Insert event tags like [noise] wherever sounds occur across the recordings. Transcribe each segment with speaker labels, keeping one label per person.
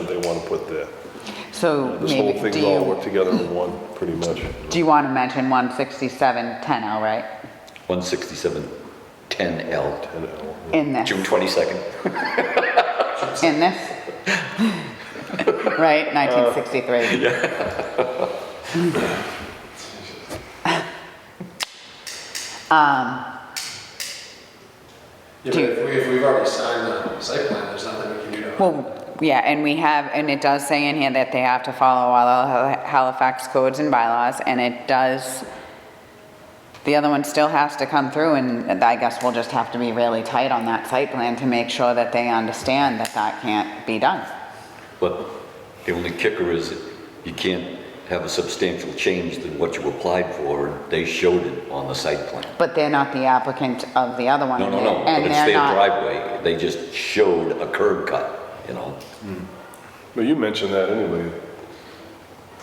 Speaker 1: want to put there.
Speaker 2: So
Speaker 1: This whole
Speaker 2: maybe,
Speaker 1: thing's
Speaker 2: do
Speaker 1: all
Speaker 2: you,
Speaker 1: worked together in one, pretty much.
Speaker 2: do you want to mention 167 10 L, oh, right?
Speaker 3: 167, 10L,
Speaker 1: And uh, L.
Speaker 2: In this,
Speaker 3: June 22nd.
Speaker 2: in this?
Speaker 3: [laughs] Uh,
Speaker 2: Right, 1963.
Speaker 4: Yeah,
Speaker 2: Do
Speaker 4: but
Speaker 2: you-
Speaker 4: if we, if we've already signed the site plan, there's nothing we can do to.
Speaker 2: Well, yeah, and we have, and it does say in here that they have to follow all the Halifax codes and bylaws, and it does, the other one still has to come through, and I guess we'll just have to be really tight on that site plan to make sure that they understand that that can't be done.
Speaker 3: But the only kicker is you can't have a substantial change than what you applied for. and They showed it on the site plan.
Speaker 2: But they're not the applicant of the other one.
Speaker 3: No, no, no, but
Speaker 2: and
Speaker 3: it's
Speaker 2: they're
Speaker 3: their
Speaker 2: not-
Speaker 3: driveway. They just showed a curb cut, you know?
Speaker 1: But you mentioned that anyway.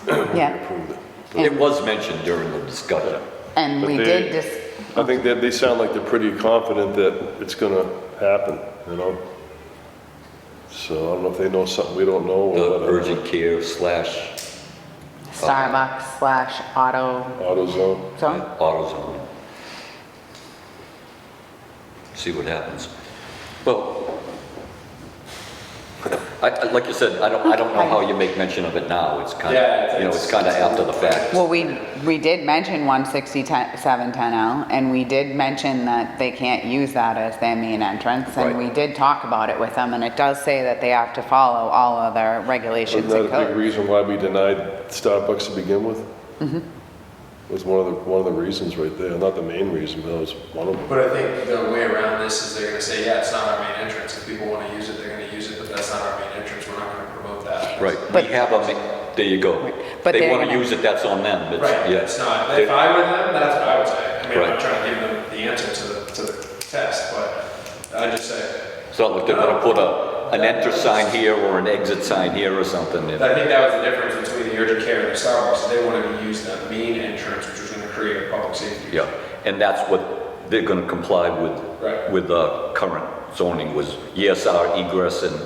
Speaker 1: when we
Speaker 2: Yeah.
Speaker 1: approved it.
Speaker 3: It was mentioned during the discussion.
Speaker 2: And
Speaker 1: But
Speaker 2: we
Speaker 1: they-
Speaker 2: did just,
Speaker 1: I think that they sound like they're pretty confident that it's gonna happen, you know? So I don't know if they know something we don't know or
Speaker 3: The
Speaker 1: whatever.
Speaker 3: urgent care slash
Speaker 2: Starbucks slash auto
Speaker 1: AutoZone.
Speaker 2: zone.
Speaker 3: AutoZone. See what happens. Well, I, I- like you said, I don't, I don't know how you make mention of it now. It's kind
Speaker 4: Yeah, it's-
Speaker 3: of, you know, it's kind of after the fact.
Speaker 2: Well, we, we did mention 16710L, and we did mention that they can't use that as their main entrance, and
Speaker 3: Right.
Speaker 2: we did talk about it with them, and it does say that they have to follow all of their
Speaker 1: Isn't
Speaker 2: regulations
Speaker 1: that
Speaker 2: and
Speaker 1: a big
Speaker 2: codes.
Speaker 1: reason why we denied Starbucks to begin with?
Speaker 2: Mm-hmm.
Speaker 1: Was one of the, one of the reasons right there, not the main reason, but that was one of them.
Speaker 4: But I think the way around this is they're gonna say, yeah, it's not our main entrance. If people wanna use it, they're gonna use it, but that's not our main entrance. We're not gonna promote that.
Speaker 3: Right,
Speaker 2: But-
Speaker 3: we have a, ma- there you go.
Speaker 2: But
Speaker 3: They
Speaker 2: they're
Speaker 3: want to
Speaker 2: gonna-
Speaker 3: use it, that's on them, but
Speaker 4: Right,
Speaker 3: yeah.
Speaker 4: it's not,
Speaker 3: They-
Speaker 4: if I were them, that's what I would say. I mean, I'm
Speaker 3: Right.
Speaker 4: not trying to give them the answer to the, to the test, but I'd just say,
Speaker 3: It's not like they're
Speaker 4: Oh.
Speaker 3: going to put a, an enter sign here or an exit sign here or something. you know.
Speaker 4: I think that was the difference between the urgent care and the Starbucks. They wanted to use that main entrance, which was gonna create a public safety.
Speaker 3: Yeah, and that's what they're going to comply with,
Speaker 4: Right.
Speaker 3: with the current zoning was, yes, our egress and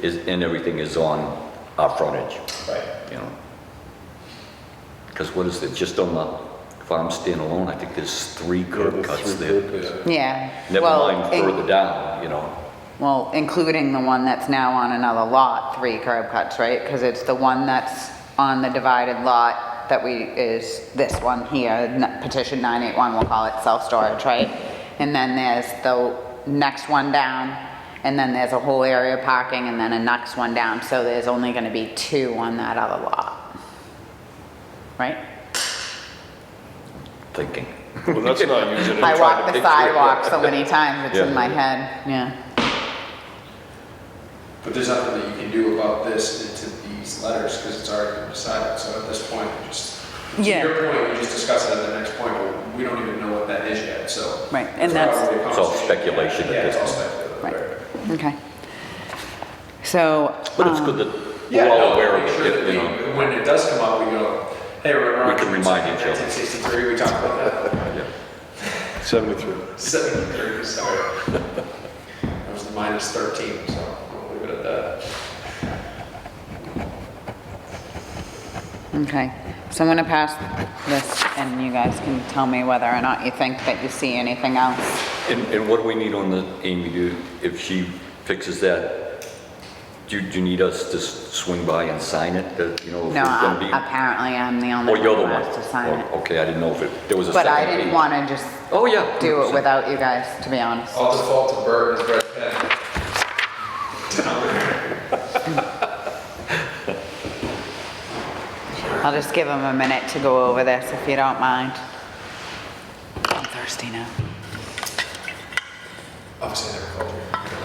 Speaker 3: is, and everything is on our frontage,
Speaker 4: Right.
Speaker 3: you know? Because what is it, just on the, if I'm standing alone, I think there's three
Speaker 1: Yeah,
Speaker 3: curb
Speaker 1: the
Speaker 3: cuts
Speaker 1: three
Speaker 3: there.
Speaker 1: curb cuts.
Speaker 2: Yeah.
Speaker 3: Never
Speaker 2: well,
Speaker 3: mind
Speaker 2: in-
Speaker 3: further down, you know?
Speaker 2: Well, including the one that's now on another lot, three curb cuts, right? Because it's the one that's on the divided lot that we, is this one here, n- petition 981, we'll call it self-storage, right? And then there's the next one down, and then there's a whole area of parking, and then a next one down. So there's only going to be two on that other lot, right?
Speaker 3: Thinking.
Speaker 1: Well, that's not using it.
Speaker 2: I walk the
Speaker 3: picture it, yeah.
Speaker 2: sidewalk so
Speaker 3: [laughs]
Speaker 2: many times, it's in
Speaker 3: Yeah.
Speaker 2: my head, yeah.
Speaker 4: But there's nothing that you can do about this into these letters because it's already been decided. So at this point, we just, to
Speaker 2: Yeah.
Speaker 4: your point, we just discuss it at the next point, but we don't even know what that is yet, so.
Speaker 2: Right, and
Speaker 4: It's
Speaker 2: that's-
Speaker 4: probably a
Speaker 3: It's all
Speaker 4: conversation.
Speaker 3: speculation at
Speaker 4: Yeah,
Speaker 3: this
Speaker 4: it's all
Speaker 3: point.
Speaker 4: speculative.
Speaker 2: Right, okay. So.
Speaker 3: But it's
Speaker 2: um,
Speaker 3: good that
Speaker 4: Yeah,
Speaker 3: we're all
Speaker 4: no,
Speaker 3: aware of
Speaker 4: make sure
Speaker 3: it,
Speaker 4: that
Speaker 3: you
Speaker 4: we,
Speaker 3: know?
Speaker 4: when it does come up, we go, hey, remember.
Speaker 3: We
Speaker 4: on
Speaker 3: can
Speaker 4: June
Speaker 3: remind
Speaker 4: 2nd,
Speaker 3: each other.
Speaker 4: 1963, we talked about that.
Speaker 1: Seventy-three.
Speaker 4: 73, sorry. That was the minus 13, so we'll leave it at that.
Speaker 2: Okay, so I'm gonna pass this, and you guys can tell me whether or not you think that you see anything else.
Speaker 3: And, and what do we need on the, Amy, do, if she fixes that, do, do you need us to s- swing by and sign it, that, you know? if
Speaker 2: No,
Speaker 3: there's gonna
Speaker 2: I-
Speaker 3: be-
Speaker 2: apparently I'm the only
Speaker 3: Or
Speaker 2: one
Speaker 3: you're the
Speaker 2: who
Speaker 3: one?
Speaker 2: has to sign
Speaker 3: Oh,
Speaker 2: it.
Speaker 3: Okay, I didn't know if it, there was a
Speaker 2: But
Speaker 3: second
Speaker 2: I didn't
Speaker 3: page.
Speaker 2: wanna just
Speaker 3: Oh, yeah.
Speaker 2: do it
Speaker 3: 100%.
Speaker 2: without you guys, to be honest.
Speaker 4: I'll default to Bert as Brett Penn.
Speaker 3: Oh.
Speaker 2: I'll just give them a minute to go over this, if you don't mind. I'm thirsty now.
Speaker 4: Obviously, I never called you.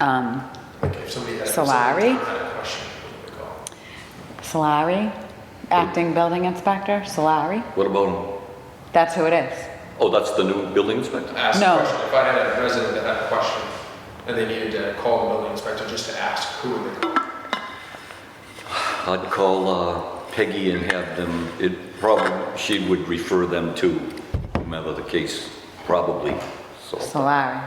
Speaker 2: Um,
Speaker 4: Like, if somebody had-
Speaker 2: Solari?
Speaker 4: if somebody had a question, they would call.
Speaker 2: Solari, acting building inspector, Solari,
Speaker 3: What about, him?
Speaker 2: that's who it is.
Speaker 3: oh, that's the new building inspector?
Speaker 4: Ask the
Speaker 2: No.
Speaker 4: question. If I had a resident that had a question and they needed to call the building inspector just to ask, who would they call?
Speaker 3: I'd call uh, Peggy and have them, it probably, she would refer them to whomever the case, probably, so.
Speaker 2: Solari.